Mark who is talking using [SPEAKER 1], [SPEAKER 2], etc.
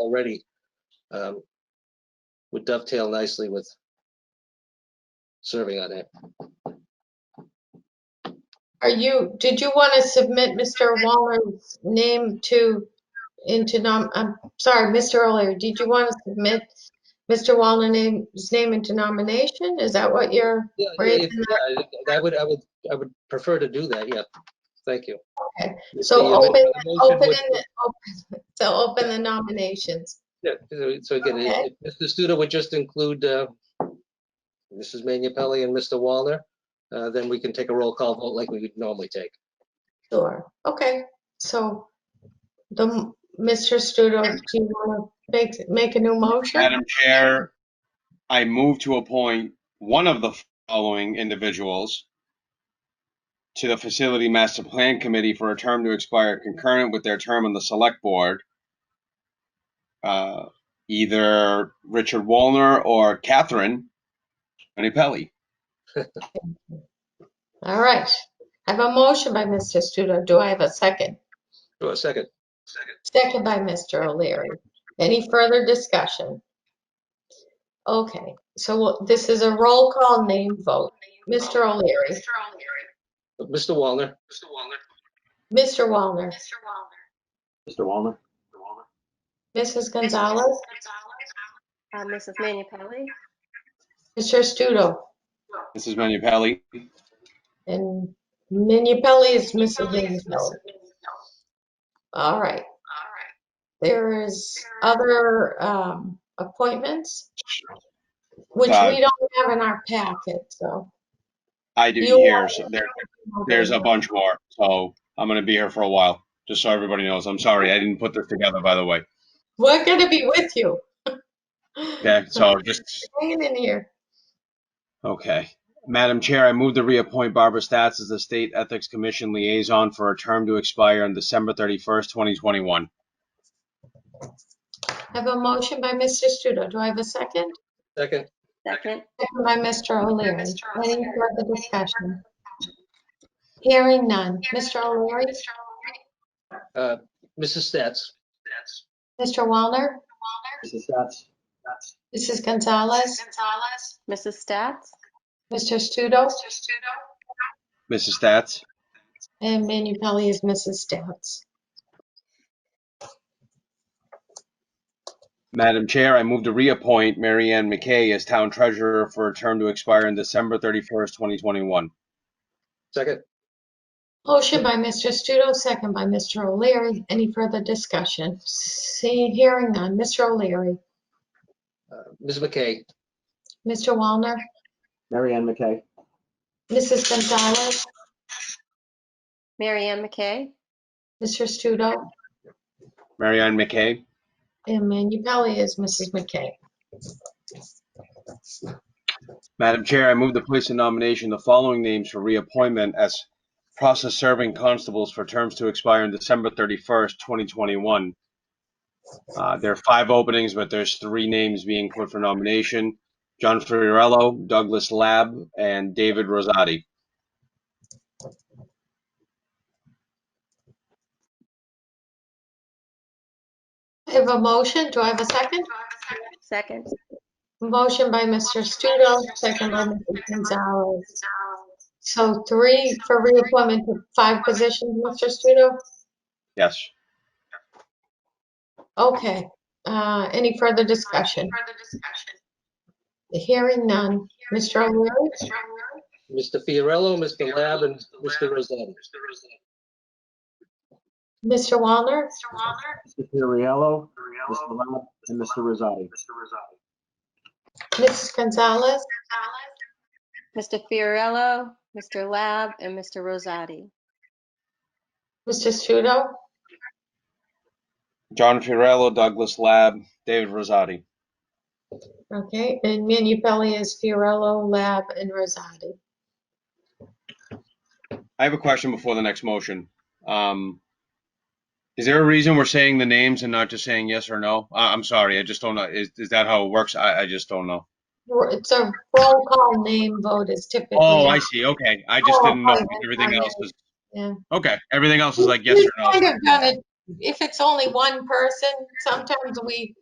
[SPEAKER 1] already um, would dovetail nicely with serving on it.
[SPEAKER 2] Are you, did you want to submit Mr. Walner's name to, into nom, I'm sorry, Mr. Earlier, did you want to submit Mr. Wallner's name, his name into nomination? Is that what you're,
[SPEAKER 1] Yeah,
[SPEAKER 2] Right,
[SPEAKER 1] if-
[SPEAKER 2] and
[SPEAKER 1] yeah, I I would, I would, I would prefer to do that, yeah. Thank you.
[SPEAKER 2] Okay,
[SPEAKER 1] If
[SPEAKER 2] so
[SPEAKER 1] the, uh,
[SPEAKER 2] open-
[SPEAKER 1] the motion
[SPEAKER 2] open,
[SPEAKER 1] would-
[SPEAKER 2] in- open- so open the nominations?
[SPEAKER 1] Yeah, so- so again, if if Mr. Studo would just include uh, Mrs. Manupelli and Mr. Wallner, uh, then we can take a roll call vote like we would normally take.
[SPEAKER 2] Sure, okay, so the, Mr. Studo, do you want to make, make a new motion?
[SPEAKER 3] Madam Chair, I move to appoint one of the following individuals to the Facility Master Plan Committee for a term to expire concurrent with their term on the Select Board. Uh, Either Richard Wallner or Catherine Menipelli.
[SPEAKER 2] All right, I have a motion by Mr. Studo, do I have a second?
[SPEAKER 1] Do a second.
[SPEAKER 2] Second by Mr. O'Leary. Any further discussion? Okay, so we'll- this is a roll call name vote. Mr. O'Leary,
[SPEAKER 1] Mr. Wallner? Mr. Wallner.
[SPEAKER 2] Mr. Wallner,
[SPEAKER 4] Mr. Walner.
[SPEAKER 5] Mr. Walner?
[SPEAKER 2] Mrs. Gonzalez,
[SPEAKER 4] Uh, Mrs. Manu Pelli.
[SPEAKER 2] Mr. Studo,
[SPEAKER 3] Mrs. Menipelli.
[SPEAKER 2] and Minipelli is Mrs. Minipelli. All right,
[SPEAKER 4] All right.
[SPEAKER 2] there is other um, appointments, which
[SPEAKER 3] Uh,
[SPEAKER 2] we don't have in our packet, so.
[SPEAKER 3] I do
[SPEAKER 2] You
[SPEAKER 3] hear,
[SPEAKER 2] are-
[SPEAKER 3] so there, there's a bunch more, so I'm gonna be here for a while, just so everybody knows. I'm sorry, I didn't put this together, by the way.
[SPEAKER 2] We're gonna be with you.
[SPEAKER 3] Okay, so just
[SPEAKER 2] Hanging in here.
[SPEAKER 3] Okay. Madam Chair, I move to reappoint Barbara Stats as the State Ethics Commission Liaison for a term to expire on December 31st, 2021.
[SPEAKER 2] I have a motion by Mr. Studo. Do I have a second?
[SPEAKER 1] Second.
[SPEAKER 4] Second.
[SPEAKER 2] Second by Mr. O'Leary.
[SPEAKER 4] Mr.
[SPEAKER 2] Any
[SPEAKER 4] O'Leary.
[SPEAKER 2] further discussion? Hearing none. Mr. O'Leary,
[SPEAKER 4] Mr. O'Leary.
[SPEAKER 1] Uh, Mrs. Stats?
[SPEAKER 2] Mr. Wallner,
[SPEAKER 5] Mrs. Stats?
[SPEAKER 2] Mrs. Gonzalez,
[SPEAKER 4] Gonzalez. Mrs. Stats.
[SPEAKER 2] Mr. Studo,
[SPEAKER 4] Mr. Studo.
[SPEAKER 3] Mrs. Stats?
[SPEAKER 2] and Manu Pelley is Mrs. Stouts.
[SPEAKER 3] Madam Chair, I move to reappoint Mary Ann McKay as Town Treasurer for a term to expire on December 31st, 2021.
[SPEAKER 1] Second.
[SPEAKER 2] Motion by Mr. Studo, second by Mr. O'Leary. Any further discussion? Seeing, hearing none. Mr. O'Leary,
[SPEAKER 1] Uh, Ms. McKay?
[SPEAKER 2] Mr. Wallner,
[SPEAKER 5] Mary Ann McKay?
[SPEAKER 2] Mrs. Gonzalez,
[SPEAKER 4] Mary Ann McKay.
[SPEAKER 2] Mr. Studo,
[SPEAKER 3] Mary Ann McKay?
[SPEAKER 2] and Manu Pelley is Mrs. McKay.
[SPEAKER 3] Madam Chair, I move to place in nomination the following names for reappointment as process-serving constables for terms to expire on December 31st, 2021. Uh, There are five openings, but there's three names being put for nomination. John Fiorello, Douglas Lab, and David Rosati.
[SPEAKER 2] I have a motion. Do I have a second?
[SPEAKER 4] Second.
[SPEAKER 2] Motion by Mr. Studo, second by Mrs. Gonzalez. So three for reappointment to five positions, Mr. Studo?
[SPEAKER 3] Yes.
[SPEAKER 2] Okay. Uh, Any further discussion?
[SPEAKER 4] Further discussion.
[SPEAKER 2] Hearing none. Mr. O'Leary,
[SPEAKER 4] Mr. O'Leary.
[SPEAKER 1] Mr. Fiorello, Mr. Lab, and Mr. Rosetti.
[SPEAKER 2] Mr. Wallner,
[SPEAKER 4] Mr. Walner.
[SPEAKER 5] Mr. Fiorello? Mr. Lab? And Mr. Rosati?
[SPEAKER 2] Mrs. Gonzalez,
[SPEAKER 4] Gonzalez. Mr. Fiorello, Mr. Lab, and Mr. Rosati.
[SPEAKER 2] Mr. Studo,
[SPEAKER 3] John Fiorello, Douglas Lab, David Rosati.
[SPEAKER 2] okay, and Manu Pelley is Fiorello, Lab, and Rosati.
[SPEAKER 3] I have a question before the next motion. Um, is there a reason we're saying the names and not just saying yes or no? I, I'm sorry, I just don't know. Is, is that how it works? I, I just don't know.
[SPEAKER 2] It's a roll call name vote is typically.
[SPEAKER 3] Oh, I see. Okay. I just
[SPEAKER 2] Oh,
[SPEAKER 3] didn't know
[SPEAKER 2] I-
[SPEAKER 3] if everything
[SPEAKER 2] I-
[SPEAKER 3] else was.
[SPEAKER 2] yeah.
[SPEAKER 3] Okay, everything else is like yes or
[SPEAKER 2] We've kind
[SPEAKER 3] no.
[SPEAKER 2] of done it if it's only one person, sometimes we